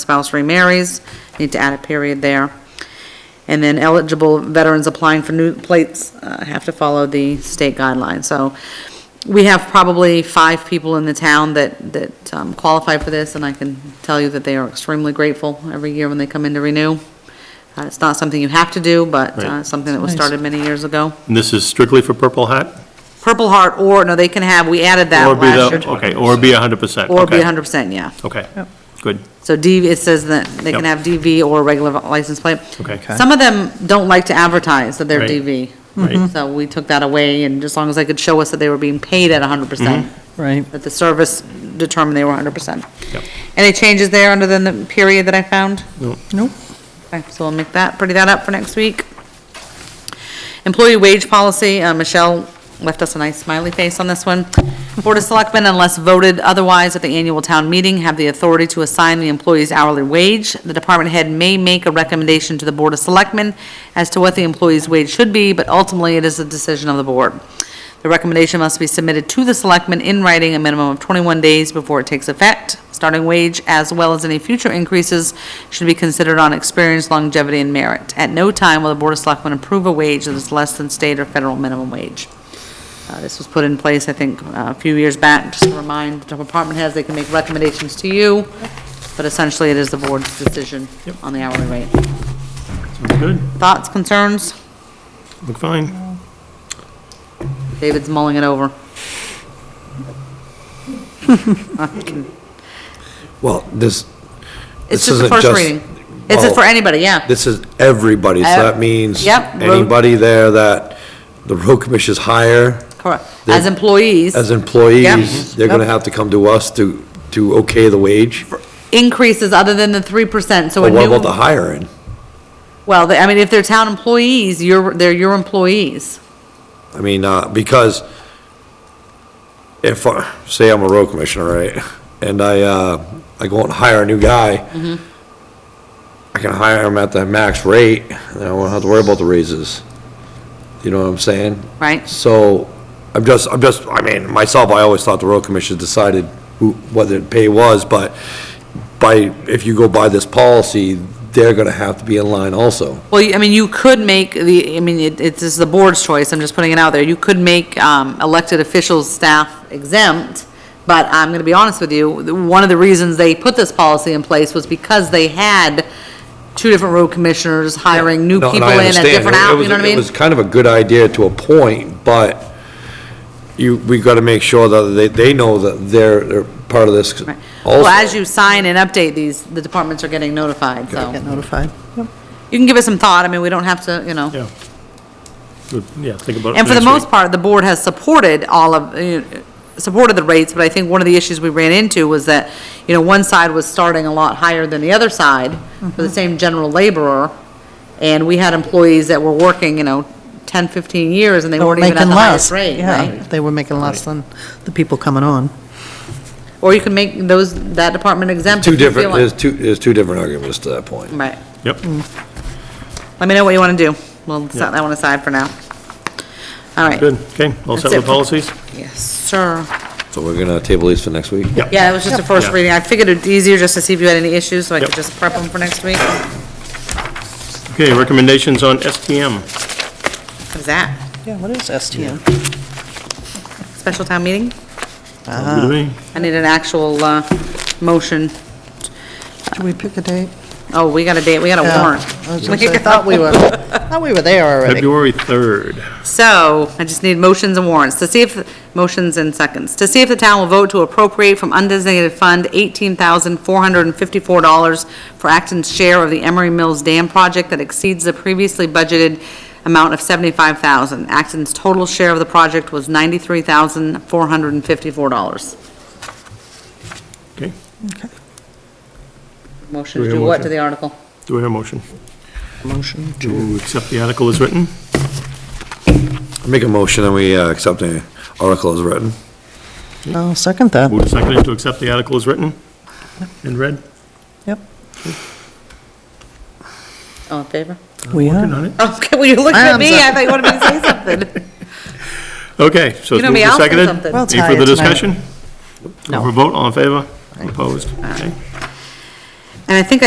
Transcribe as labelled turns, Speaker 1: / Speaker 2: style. Speaker 1: spouse remarries, need to add a period there. And then eligible veterans applying for new plates uh, have to follow the state guidelines. So we have probably five people in the town that, that um, qualify for this, and I can tell you that they are extremely grateful every year when they come in to renew. Uh, It's not something you have to do, but uh,
Speaker 2: Right.
Speaker 1: something that was started many years ago.
Speaker 2: And this is strictly for Purple Hat?
Speaker 1: Purple Heart, or, no, they can have, we added that
Speaker 2: Or be the-
Speaker 1: last year.
Speaker 2: Okay, or be 100%?
Speaker 1: Or be
Speaker 2: okay,
Speaker 1: hundred percent, yeah.
Speaker 2: Okay, good.
Speaker 1: So DV, it says that they can
Speaker 2: Yep.
Speaker 1: have DV or regular license plate.
Speaker 2: Okay. Okay.
Speaker 1: Some of them don't like to advertise that they're
Speaker 2: Right.
Speaker 1: DV.
Speaker 2: Right.
Speaker 1: So we took that away, and as long as they could show us that they were being paid at hundred percent,
Speaker 3: Right.
Speaker 1: that the service determined they were hundred percent.
Speaker 2: Mm-hmm. Yep.
Speaker 1: Any changes there under than the period that I found?
Speaker 3: Nope.
Speaker 1: Okay, so we'll make that, pretty that up for next week. Employee wage policy, uh, Michelle left us a nice smiley face on this one. Board of Selectmen, unless voted otherwise at the annual town meeting, have the authority to assign the employee's hourly wage. The department head may make a recommendation to the Board of Selectmen as to what the employee's wage should be, but ultimately it is the decision of the board. The recommendation must be submitted to the selectmen in writing a minimum of 21 days before it takes effect. Starting wage, as well as any future increases, should be considered on experience, longevity, and merit. At no time will the Board of Selectmen approve a wage that is less than state or federal minimum wage. Uh, This was put in place, I think, uh, a few years back, just to remind the department heads, they can make recommendations to you, but essentially it is the board's decision on the hourly rate.
Speaker 2: Sounds Good,
Speaker 1: Thoughts, concerns?
Speaker 2: look fine.
Speaker 1: David's mulling it over. I can-
Speaker 4: Well, this,
Speaker 1: It's
Speaker 4: This
Speaker 1: just the
Speaker 4: isn't
Speaker 1: first
Speaker 4: just-
Speaker 1: reading. It's just for
Speaker 4: well,
Speaker 1: anybody, yeah.
Speaker 4: this is everybody, so
Speaker 1: Uh,
Speaker 4: that means
Speaker 1: yep, road-
Speaker 4: anybody there that the road commissioners hire
Speaker 1: Correct.
Speaker 4: the-
Speaker 1: As employees,
Speaker 4: as
Speaker 1: Yep.
Speaker 4: employees, they're gonna have to come to us to, to okay the wage,
Speaker 1: increases other than the three percent, so a
Speaker 4: but what about the
Speaker 1: new,
Speaker 4: hiring?
Speaker 1: well, they- I mean, if they're town employees, you're, they're your employees.
Speaker 4: I mean, uh, because if, I- say I'm a road commissioner, right, and I, uh, I go out and hire a new guy,
Speaker 1: Mm-hmm.
Speaker 4: I can hire him at the max rate, and I won't have to worry about the raises. You know what I'm saying?
Speaker 1: Right.
Speaker 4: So, I'm just, I'm just, I mean, myself, I always thought the road commission decided who, what the pay was, but by, if you go by this policy, they're gonna have to be in line also.
Speaker 1: Well, you- I mean, you could make the, I mean, it, it's just the board's choice, I'm just putting it out there. You could make, um, elected officials, staff exempt, but I'm gonna be honest with you, the- one of the reasons they put this policy in place was because they had two different road commissioners hiring new
Speaker 4: No, and
Speaker 1: people
Speaker 4: I
Speaker 1: in at
Speaker 4: understand.
Speaker 1: different
Speaker 4: It
Speaker 1: hours,
Speaker 4: was-
Speaker 1: you know what I mean?
Speaker 4: It was kind of a good idea to a point, but you, we gotta make sure that they, they know that they're, they're part of this
Speaker 1: Right. Well, as
Speaker 4: also.
Speaker 1: you sign and update these, the departments are getting notified, so.
Speaker 3: Get notified.
Speaker 1: You can give it some thought, I mean, we don't have to, you know.
Speaker 2: Yeah. Good, Yeah, think about it.
Speaker 1: And for the
Speaker 2: next
Speaker 1: most
Speaker 2: week.
Speaker 1: part, the board has supported all of, uh, supported the rates, but I think one of the issues we ran into was that, you know, one side was starting a lot higher than the other side for
Speaker 3: Mm-hmm.
Speaker 1: the same general laborer, and we had employees that were working, you know, 10, 15 years, and they
Speaker 3: They were
Speaker 1: weren't even at
Speaker 3: making
Speaker 1: the highest
Speaker 3: less.
Speaker 1: rate,
Speaker 3: Yeah,
Speaker 1: right?
Speaker 3: they were making less than the people coming on.
Speaker 1: Or you can make those, that department exempt.
Speaker 4: Two
Speaker 1: if you feel
Speaker 4: different,
Speaker 1: like-
Speaker 4: there's two, there's two different arguments to that point.
Speaker 1: Right.
Speaker 2: Yep,
Speaker 1: Mm, Let me know what you want to do. We'll set
Speaker 2: Yeah.
Speaker 1: that one aside for now. All right.
Speaker 2: good, okay, all set
Speaker 1: That's it
Speaker 2: with
Speaker 1: for-
Speaker 2: policies?
Speaker 1: Yes, sir.
Speaker 4: So we're gonna table these for next week?
Speaker 1: Yeah, it was just a first
Speaker 2: Yeah.
Speaker 1: reading. I figured it'd be easier just to see if you had any issues, so I could
Speaker 2: Yep.
Speaker 1: just prep them for next week. What
Speaker 2: Okay, recommendations on STM.
Speaker 1: is that?
Speaker 3: Yeah, what is STM?
Speaker 1: Special town meeting?
Speaker 3: Uh-huh.
Speaker 2: Sounds good to me.
Speaker 1: I need an actual, uh, motion.
Speaker 3: Do we pick a date?
Speaker 1: Oh, we got a date, we got a
Speaker 3: Yeah.
Speaker 1: warrant.
Speaker 3: I was gonna say, I thought we were, I thought we were there already.
Speaker 2: February 3rd.
Speaker 1: So, I just need motions and warrants to see if, motions and seconds, to see if the town will vote to appropriate from undesignated fund $18,454 for Acton's share of the Emery Mills Dam project that exceeds the previously budgeted amount of $75,000. Acton's total share of the project was $93,454.
Speaker 2: Okay,
Speaker 1: Motion
Speaker 2: Do we
Speaker 1: to
Speaker 2: have
Speaker 1: do what to
Speaker 2: motion?
Speaker 1: the article?
Speaker 2: do we have a motion?
Speaker 3: Motion
Speaker 2: To accept the article as written?
Speaker 4: Make a motion and we, uh, accept the article as written.
Speaker 3: I'll second that.
Speaker 2: Move to second to accept the article as written and read?
Speaker 3: Yep.
Speaker 1: All in favor?
Speaker 3: We
Speaker 2: Working
Speaker 3: are.
Speaker 2: on it?
Speaker 1: Okay, Oh, well, you looked
Speaker 3: I
Speaker 1: at
Speaker 3: am
Speaker 1: me, I thought you wanted me to say something.
Speaker 2: Okay, so
Speaker 1: You
Speaker 2: it's
Speaker 1: know
Speaker 2: moved
Speaker 1: me,
Speaker 2: and
Speaker 1: I'll say
Speaker 2: seconded.
Speaker 1: something.
Speaker 3: Well,
Speaker 2: Any further
Speaker 3: tired tonight.
Speaker 2: discussion?
Speaker 3: No.
Speaker 2: Over vote, all in favor? Opposed? Okay.
Speaker 1: And I think I